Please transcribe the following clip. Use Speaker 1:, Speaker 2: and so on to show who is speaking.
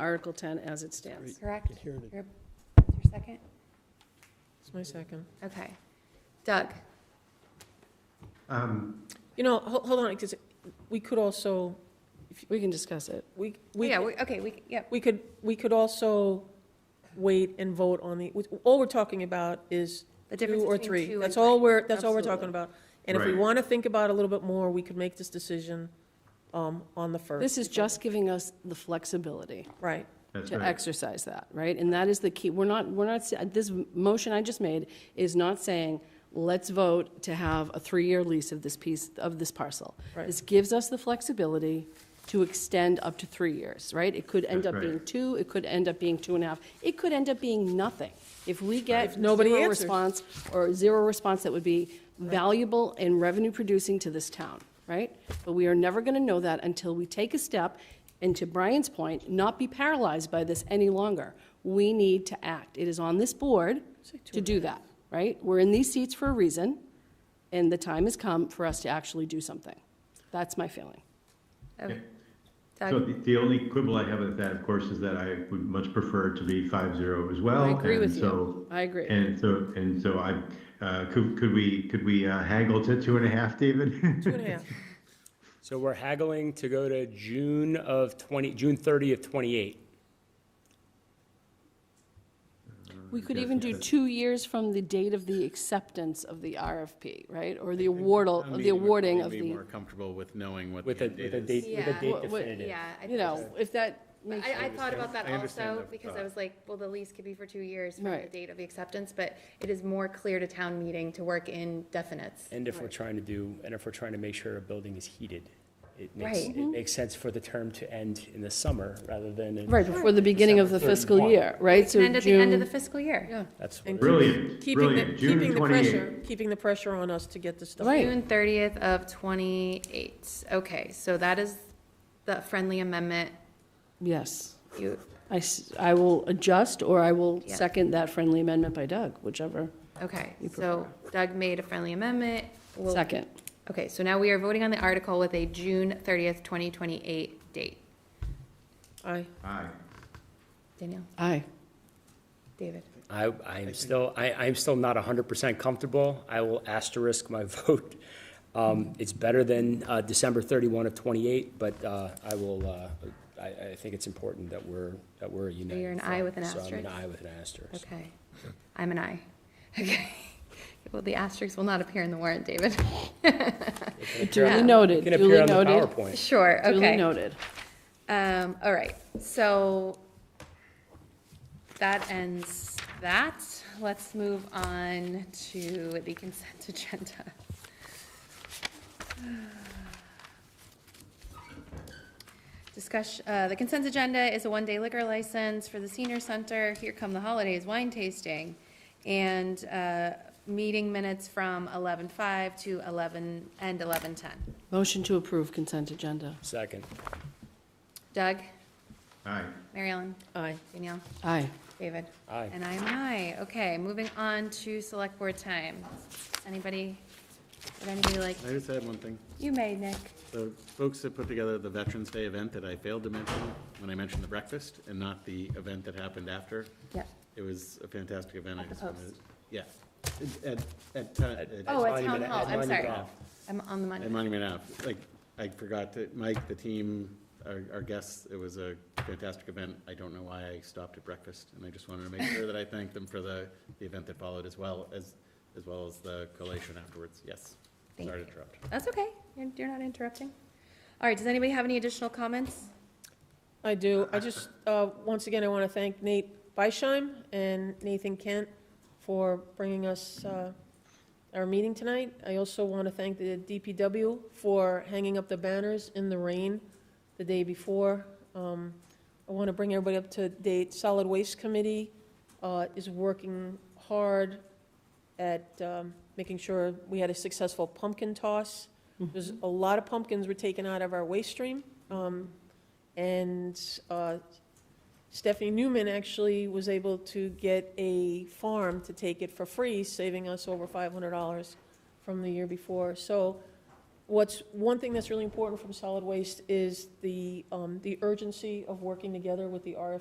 Speaker 1: Article 10 as it stands.
Speaker 2: correct?
Speaker 3: Can hear it.
Speaker 2: Your your second?
Speaker 4: It's my second.
Speaker 2: Okay. Doug?
Speaker 5: Um,
Speaker 4: You know, hold, hold on, because we could also,
Speaker 1: We can discuss it.
Speaker 4: we,
Speaker 2: Oh,
Speaker 4: we,
Speaker 2: Yeah, we- okay, we, yep.
Speaker 4: we could, we could also wait and vote on the, all we're talking about is
Speaker 2: The difference
Speaker 4: two or
Speaker 2: between two
Speaker 4: three.
Speaker 2: and
Speaker 4: That's all
Speaker 2: three.
Speaker 4: we're, that's all we're talking
Speaker 1: Absolutely.
Speaker 4: about. And if we
Speaker 5: Right.
Speaker 4: want to think about it a little bit more, we could make this decision, um, on the first.
Speaker 1: This is just giving us the flexibility
Speaker 4: Right,
Speaker 5: that's
Speaker 1: to
Speaker 5: right.
Speaker 1: exercise that, right? And that is the key. We're not, we're not, this motion I just made is not saying, let's vote to have a three-year lease of this piece, of this parcel.
Speaker 4: Right.
Speaker 1: This gives us the flexibility to extend up to three years, right? It could end
Speaker 5: That's
Speaker 1: up
Speaker 5: right.
Speaker 1: being two, it could end up being two and a half, it could end up being nothing. If we get
Speaker 4: If nobody
Speaker 1: zero
Speaker 4: answers.
Speaker 1: response, or zero response that would be valuable and revenue-producing to this town, right? But we are never going to know that until we take a step, and to Brian's point, not be paralyzed by this any longer. We need to act. It is on this board to do that, right? We're in these seats for a reason, and the time has come for us to actually do something. That's my feeling.
Speaker 2: Oh,
Speaker 5: Yeah. So
Speaker 2: Doug,
Speaker 5: the, the only quibble I have with that, of course, is that I would much prefer it to be five zero as well.
Speaker 1: I agree
Speaker 5: and
Speaker 1: with you.
Speaker 5: so-
Speaker 1: I agree.
Speaker 5: And so, and so I, uh, could, could we, could we uh, haggle to two and a half, David?
Speaker 4: two and a half.
Speaker 6: So we're haggling to go to June of 20, June 30 of 28.
Speaker 1: We could even do two years from the date of the acceptance of the RFP, right? Or the awardal, the awarding of
Speaker 7: Be
Speaker 1: the,
Speaker 7: more comfortable with knowing what
Speaker 6: With a,
Speaker 7: the end
Speaker 6: with
Speaker 7: date
Speaker 6: a
Speaker 7: is.
Speaker 6: date, with a
Speaker 2: Yeah.
Speaker 6: date
Speaker 1: What- what-
Speaker 6: definitive.
Speaker 2: yeah. I
Speaker 1: you know,
Speaker 2: think-
Speaker 1: if that makes,
Speaker 2: I, I thought about that
Speaker 7: I understand
Speaker 2: also,
Speaker 7: the
Speaker 2: because I
Speaker 7: thought.
Speaker 2: was like, well, the lease could be for two years from the
Speaker 1: Right.
Speaker 2: date of the acceptance, but it is more clear to town meeting to work in definites.
Speaker 6: And if we're trying to do, and if we're trying to make sure a building is heated, it makes,
Speaker 2: Right. Mm-hmm.
Speaker 6: it makes sense for the term to end in the summer rather than in.
Speaker 1: right, before the beginning of the fiscal year, right? So
Speaker 2: And at the end of
Speaker 1: June,
Speaker 2: the fiscal year,
Speaker 6: That's what
Speaker 4: And
Speaker 6: it is.
Speaker 5: Brilliant,
Speaker 4: Keeping the,
Speaker 5: brilliant.
Speaker 4: keeping
Speaker 5: June
Speaker 4: the
Speaker 5: twenty-eight.
Speaker 4: pressure, keeping the pressure on us to get this stuff.
Speaker 1: Right.
Speaker 2: June thirtieth of twenty-eight. Okay, so that is the friendly amendment.
Speaker 1: yes.
Speaker 2: You,
Speaker 1: I, s- I will adjust, or I will
Speaker 2: Yeah.
Speaker 1: second that friendly amendment by Doug, whichever.
Speaker 2: okay, so Doug made a friendly amendment. We'll-
Speaker 1: Second.
Speaker 2: Okay, so now we are voting on the article with a June thirtieth, twenty twenty-eight date.
Speaker 4: Aye.
Speaker 5: Aye.
Speaker 2: Danielle,
Speaker 1: Aye.
Speaker 2: David?
Speaker 6: I, I'm still, I, I'm still not hundred percent comfortable. I will asterisk my vote. Um, it's better than, uh, December thirty-one of twenty-eight, but, uh, I will, uh, I, I think it's important that we're, that we're a united.
Speaker 2: an
Speaker 6: front.
Speaker 2: I with an
Speaker 6: So I'm an
Speaker 2: asterisk?
Speaker 6: I with an asterisk.
Speaker 2: Okay, I'm an I. Okay, well, the asterisks will not appear in the warrant, David.
Speaker 1: Duly
Speaker 2: Yeah.
Speaker 1: noted,
Speaker 6: It can appear
Speaker 1: duly
Speaker 6: on the
Speaker 1: noted.
Speaker 6: PowerPoint.
Speaker 2: Sure,
Speaker 1: Duly
Speaker 2: okay.
Speaker 1: noted.
Speaker 2: Um, all right, so that ends that. Let's move on to the consent agenda. Discuss, uh, the consent agenda is a one-day liquor license for the senior center, Here Come the Holidays wine tasting, and, uh, meeting minutes from eleven-five to eleven, and eleven-ten.
Speaker 1: Motion to approve consent agenda.
Speaker 6: Second.
Speaker 2: Doug,
Speaker 5: Aye.
Speaker 2: Mary Ellen,
Speaker 4: Aye.
Speaker 2: Danielle?
Speaker 1: Aye.
Speaker 2: David?
Speaker 6: Aye.
Speaker 2: And I'm an aye. Okay, moving on to select board time. Anybody, would anybody like,
Speaker 7: I just had one thing.
Speaker 2: you may, Nick.
Speaker 7: The folks that put together the Veterans Day event that I failed to mention when I mentioned the breakfast and not the event that happened after.
Speaker 2: Yeah.
Speaker 7: It was a fantastic event. I
Speaker 2: At the
Speaker 7: just wanted-
Speaker 2: Post.
Speaker 7: Yeah. At, at, ti- at.
Speaker 2: Oh, at town
Speaker 6: Monument-
Speaker 2: hall,
Speaker 6: at
Speaker 2: I'm
Speaker 6: Monument
Speaker 2: sorry.
Speaker 6: Ave.
Speaker 2: I'm on the money.
Speaker 7: At Monument Ave, like, I forgot to, Mike, the team, our, our guests, it was a fantastic event. I don't know why I stopped at breakfast, and I just wanted to make sure that I thanked them for the, the event that followed as well, as, as well as the collation afterwards, yes.
Speaker 2: Thank
Speaker 7: Sorry
Speaker 2: you.
Speaker 7: to interrupt.
Speaker 2: That's okay. You're, you're not interrupting. All right, does anybody have any additional comments?
Speaker 4: I do. I just, uh, once again, I want to thank Nate Beisheim and Nathan Kent for bringing us uh, our meeting tonight. I also want to thank the DPW for hanging up the banners in the rain the day before. Um, I want to bring everybody up to date. Solid Waste Committee uh, is working hard at um, making sure we had a successful pumpkin toss. There's a lot of pumpkins were taken out of our waste stream. Um, and uh, Stephanie Newman actually was able to get a farm to take it for free, saving us over $500 from the year before. So What's, one thing that's really important from solid waste is the, um, the urgency of working together with the RFP